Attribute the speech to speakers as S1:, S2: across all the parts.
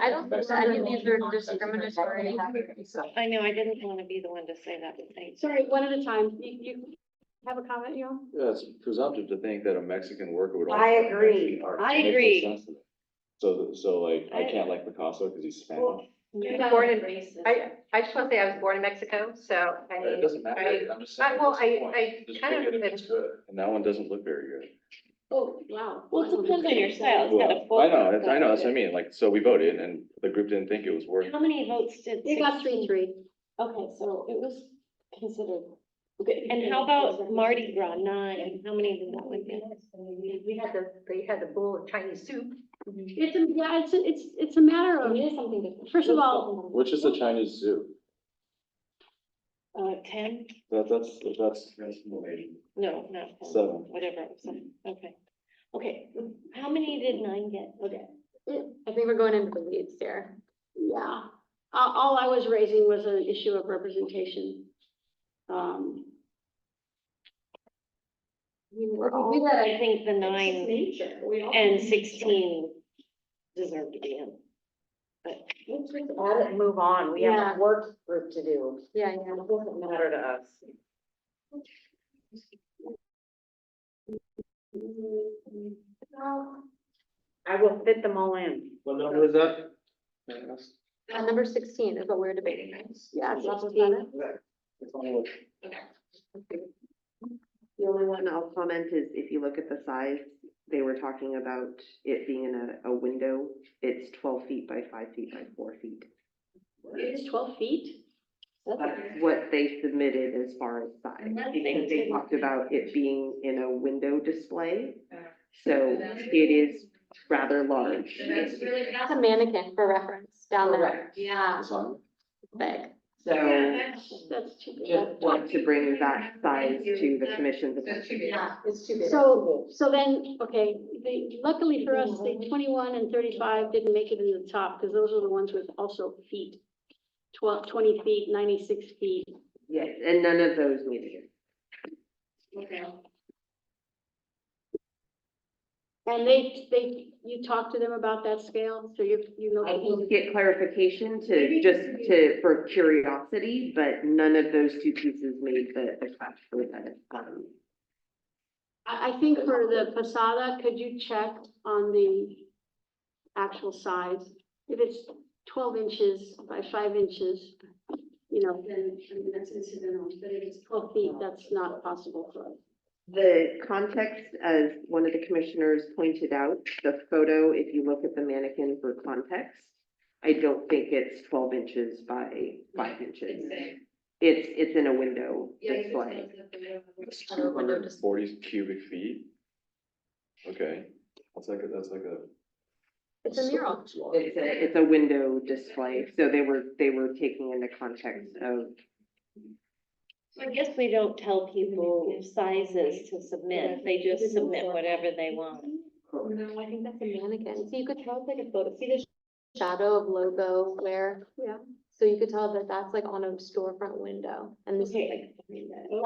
S1: I don't think that any of these are discriminatory.
S2: I know, I didn't want to be the one to say that, but thanks.
S3: Sorry, one at a time. You, you have a comment, you
S4: Yeah, it's presumptive to think that a Mexican worker would.
S5: I
S4: also
S5: agree.
S4: actually art.
S2: I
S4: It makes no
S2: agree.
S4: sense to me. So, so like, I
S2: I-
S4: can't like Picasso because he's Spanish.
S5: Well,
S2: Yeah.
S5: Born in, I, I just want to say I was born in Mexico, so I
S4: It
S5: mean,
S4: doesn't matter.
S5: I-
S4: I'm just
S5: I,
S4: saying.
S5: well,
S4: what's the point?
S5: I, I
S4: Just
S5: kind
S4: pick
S5: of,
S4: it if it's good. And that one doesn't look very good.
S3: Oh, wow.
S2: Well, it depends on your style. It's got a
S4: Well, I know,
S2: full-
S4: it's- I know, that's what I mean. Like, so we voted and the group didn't think it was worth.
S2: How many votes did?
S3: You got three,
S2: 16?
S3: three.
S2: Okay, so it was considered. Okay, and how about Mardi Gras nine? How many did that one get?
S5: we had the, they had the bowl of Chinese soup.
S3: It's, a- yeah, it's, a- it's, it's a matter
S2: It
S3: of,
S2: is something different.
S3: First of all-
S4: Which is the Chinese zoo?
S2: Uh, ten?
S4: That, that's, that's. that's more than
S2: No, not ten,
S4: Seven.
S2: whatever. it was. Okay. Okay, how many did nine get? Okay.
S3: I think we're going into the weeds there. Yeah. All, all I was raising was an issue of representation. Um. We were all.
S2: I think the nine
S3: Nature. We all-
S2: and sixteen deserve to be in. But
S5: Let's just add it and move on. We
S3: Yeah.
S5: have a work group to do.
S3: Yeah, yeah.
S5: It doesn't matter to us. I will fit them all in.
S6: What number is that?
S3: Uh, number sixteen is what we're debating, right? Yeah.
S6: Yeah.
S3: 16.
S6: It's only like-
S7: The only one I'll comment is if you look at the size, they were talking about it being in a, a window. It's twelve feet by five feet by four feet.
S3: It is twelve feet?
S7: That's what they submitted as far as size,
S2: And that's
S7: because they
S2: eighteen.
S7: talked about it being in a window display. So it is rather large.
S3: That's a mannequin for reference down there.
S7: Correct.
S3: Yeah.
S4: Design?
S3: Big.
S7: So
S3: That's too
S7: just want to bring that size to the commission's attention.
S5: Yeah, it's too big.
S3: So, so then, okay, the- luckily for us, the twenty-one and thirty-five didn't make it in the top, because those are the ones with also feet. Twelve, twenty feet, ninety-six feet.
S7: Yes, and none of those needed it.
S3: And they, they, you talked to them about that scale, so you, you know.
S7: I will get clarification to, just to, for curiosity, but none of those two pieces made the, the cut for the, um,
S3: I, I think for the posada, could you check on the actual size? If it's twelve inches by five inches, you know, then, I mean, that's incidental, but if it's twelve feet, that's not possible for us.
S7: The context, as one of the commissioners pointed out, the photo, if you look at the mannequin for context, I don't think it's twelve inches by five inches. It's, it's in a window display.
S4: It's two hundred and forty cubic feet. Okay, that's like, a that's like a.
S3: It's a mural.
S4: It's large.
S7: It's a, it's a window display, so they were, they were taking into context of
S2: I guess we don't tell people sizes to submit. They just submit whatever they want.
S3: No, I think that's a mannequin. So you could tell it's like a photo, see the shadow of logo where? Yeah. So you could tell that that's like on a storefront window and this is
S2: Okay.
S3: like.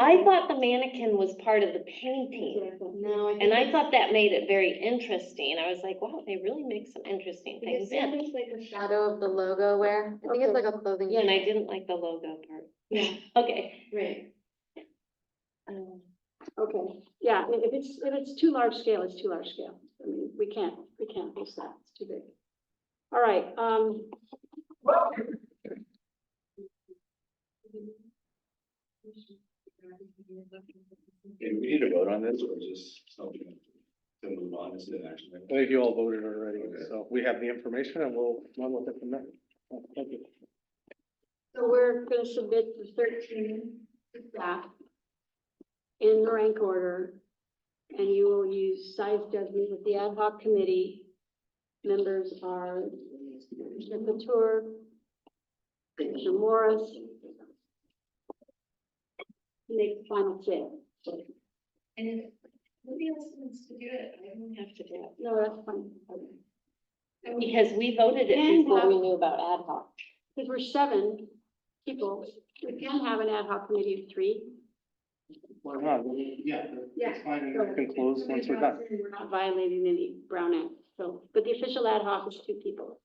S2: I thought the mannequin was part of the painting.
S3: No, I think.
S2: And I thought that made it very interesting. I was like, wow, they really make some interesting things in.
S3: like a shadow of the logo where, I think it's
S2: Okay.
S3: like a clothing.
S2: Yeah, and I didn't like the logo part.
S3: Yeah.
S2: Okay.
S3: Right.
S2: Um,
S3: Okay, yeah, i- if it's, if it's too large scale, it's too large scale. I mean, we can't, we can't push that, it's too big. All right, um.
S4: Okay, Do we need to vote on this or just something to move on as an action?
S6: I think you all voted already,
S4: Okay.
S6: so we have the information and we'll run with it from there. Thank you.
S3: So we're gonna submit the thirteen to staff in the rank order. And you will use size judgment with the ad hoc committee. Members are Commissioner Couture, Commissioner Morris. Make the final check.
S8: And if nobody else wants to do it, I don't have to do it.
S3: No, that's fine.
S2: Because we voted
S3: And
S2: it before we
S3: have-
S2: knew about ad hoc.
S3: Because we're seven people, we can have an ad hoc committee of three.
S6: Why not? Yeah,
S3: Yeah.
S6: it's fine. and We can close once we're done.
S3: We're not violating any Brown Act, so, but the official ad hoc is two people.